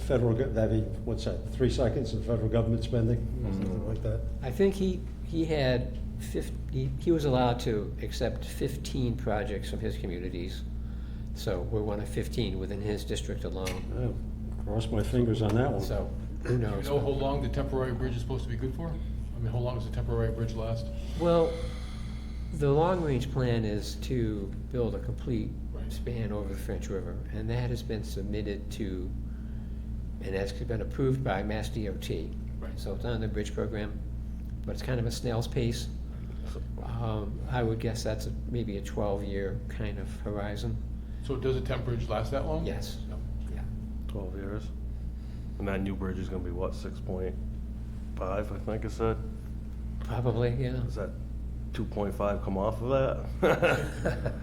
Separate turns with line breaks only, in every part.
federal, gov- that'd be, what's that, three seconds in federal government spending, something like that?
I think he, he had fifty, he was allowed to accept fifteen projects from his communities. So we're one of fifteen within his district alone,
Oh, Cross my fingers on that one.
so who
Do you
knows?
know how long the temporary bridge is supposed to be good for? I mean, how long does the temporary bridge last?
Well, the long-range plan is to build a complete
Right.
span over the French River, and that has been submitted to, and that's been approved by Mass DOT.
Right.
So it's on the bridge program, but it's kind of a snail's pace. Um, I would guess that's a- maybe a twelve-year kind of horizon.
So does a temp bridge last that long?
Yes.
No.
Yeah.
Twelve years. And that new bridge is gonna be what, six point five, I think it said?
Probably, yeah.
Is that two point five come off of that?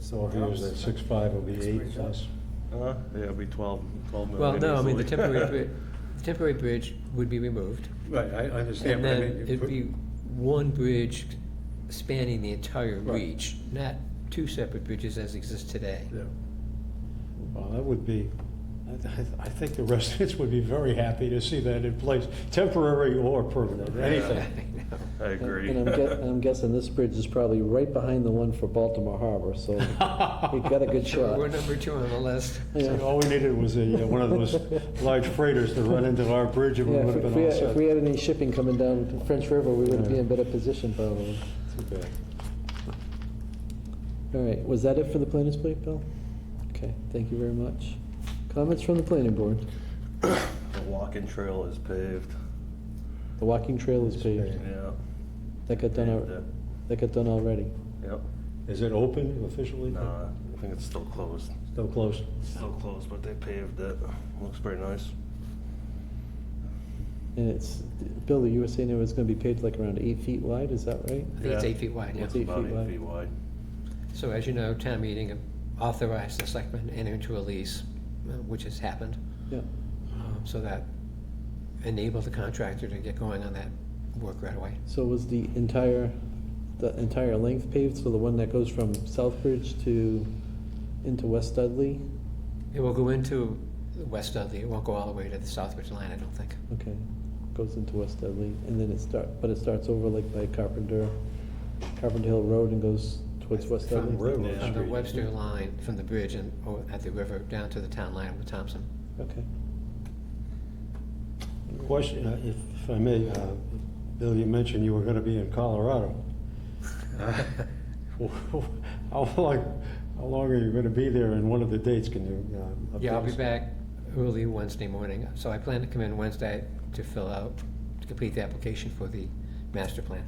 So if you use that six-five, it'll be eight plus.
Huh? Yeah, it'd be twelve, twelve million
Well,
easily.
no, I mean, the temporary, bri- the temporary bridge would be removed.
Right, I I understand
And
what I
then
mean. You
it'd
put-
be one bridge spanning the entire
Right.
reach, not two separate bridges as exist today.
Yeah.
Well, that would be, I- I- I think the residents would be very happy to see that in place, temporary or permanent, anything.
I agree.
And I'm gue- I'm guessing this bridge is probably right behind the one for Baltimore Harbor, so we've got a good shot.
We're number two on the list.
See,
Yeah.
All we needed was a, uh, one of those large freighters to run into our bridge and we
Yeah,
would
if
have
if
been
we
all
had- if we
set.
had any shipping coming down the French River, we would be in better position probably.
Too bad.
All right, was that it for the planners' plate, Bill? Okay, thank you very much. Comments from the planning board?
The walking trail is paved,
The walking trail is paved.
yeah.
That got done,
Paved
al-
it.
that got done already.
Yep,
Is it open officially?
nah, I think it's still closed,
Still closed?
still closed, but they paved it, looks pretty nice.
And it's, Bill, you were saying it was gonna be paved like around eight feet wide, is that right?
I think it's
Yeah.
eight feet wide, yeah.
It's
Eight
about
feet
eight
wide.
feet wide.
So as you know, town meeting authorized the selectmen to enter into a lease, uh, which has happened.
Yeah.
um, So that enabled the contractor to get going on that work right away.
So was the entire, the entire length paved, so the one that goes from Southbridge to, into West Dudley?
It will go into the west Dudley, it won't go all the way to the Southbridge line, I don't think.
Okay, goes into West Dudley, and then it start, but it starts over like by Carpenter, Carpenter Hill Road and goes towards West
From-
Dudley?
Railroad
From the
Street.
Webster line, from the bridge and, o- at the river, down to the town line with Thompson.
Okay.
Question, uh, if if I may, uh, Bill, you mentioned you were going to be in Colorado. How long, how long are you going to be there and one of the dates can you? uh,
Yeah, I'll be
update us?
back early Wednesday morning, so I plan to come in Wednesday to fill out, to complete the application for the master plan.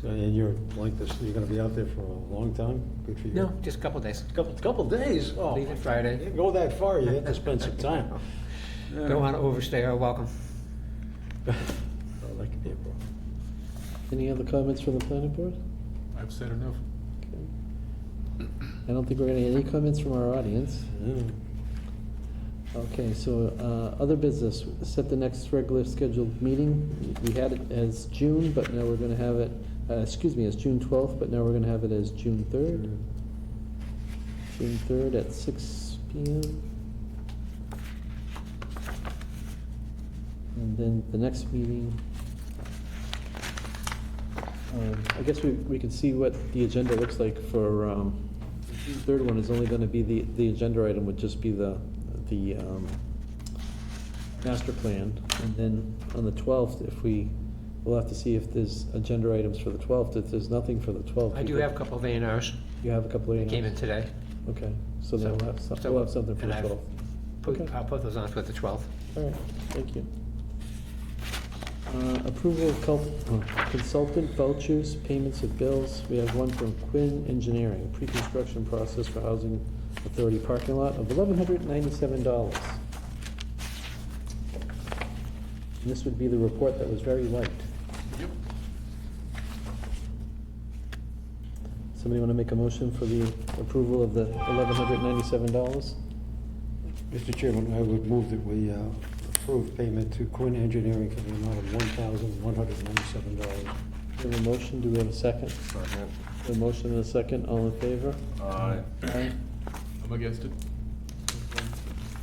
So, And you're like this, you're going to be out there for a long time? Good for you.
No, just a couple days.
Couple, couple days? Oh,
Leaving
my-
Friday.
you didn't Go that far, you had to spend some time.
Don't want to overstay our welcome.
Oh, that could be a problem.
Any other comments from the planning board?
I've said enough.
I don't think we're gonna get any comments from our audience.
Yeah.
Okay, so, uh, other business, set the next regular scheduled meeting. We had it as June, but now we're gonna have it, uh, excuse me, as June twelfth, but now we're gonna have it as June third. June third at six P M. And then the next meeting. Um, I guess we, we can see what the agenda looks like for, um, the June third one is only gonna be the, the agenda item would just be the, the, um, master plan. And then on the twelfth, if we, we'll have to see if there's agenda items for the twelfth. If there's nothing for the twelfth.
I do have a couple of A and Rs
You have a couple of.
that came in today.
Okay, so then we'll have, some-
So-
we'll have something for
and
the
I've
12th.
put-
Okay.
I'll put those on for the 12th.
All right, thank you. Uh, Approval of cul- uh, consultant vouchers, payments of bills. We have one from Quinn Engineering, pre-construction process for Housing Authority parking lot of $1,197. And This would be the report that was very light.
Yep.
Somebody want to make a motion for the approval of the $1,197?
Mr. Chairman, I would move that we uh, approve payment to Quinn Engineering for the amount of $1,197.
We have a motion, do we have a second?
Second.
A motion and a second, all in favor?
Aye.
Aye.
I'm against it.